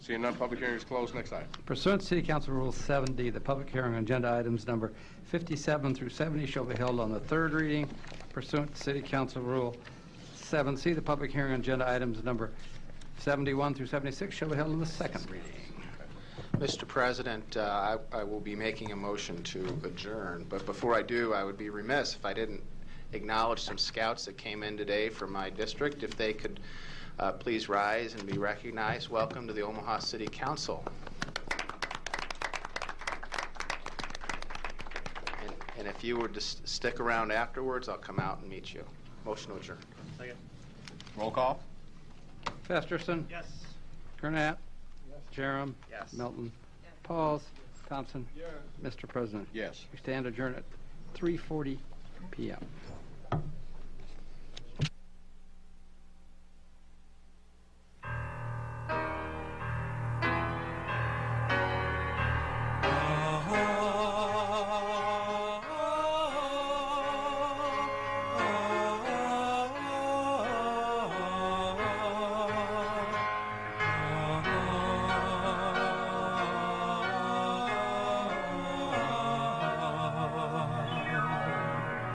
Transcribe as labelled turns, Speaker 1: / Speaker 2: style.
Speaker 1: Seeing none, public hearing is closed. Next item.
Speaker 2: Pursuant to City Council Rule 7D, the public hearing on agenda items number 57 through 70 shall be held on the third reading. Pursuant to City Council Rule 7C, the public hearing on agenda items number 71 through 76 shall be held on the second reading.
Speaker 3: Mr. President, uh, I I will be making a motion to adjourn, but before I do, I would be remiss if I didn't acknowledge some scouts that came in today from my district. If they could uh, please rise and be recognized. Welcome to the Omaha City Council. And- And if you would just stick around afterwards, I'll come out and meet you. Motion to adjourn.
Speaker 1: Roll call.
Speaker 2: Festerson.
Speaker 4: Yes.
Speaker 2: Gurnett. Jerem.
Speaker 4: Yes.
Speaker 2: Milton. Pauls. Thompson. Mr. President.
Speaker 1: Yes.
Speaker 2: We stand adjourned at 3:40 PM.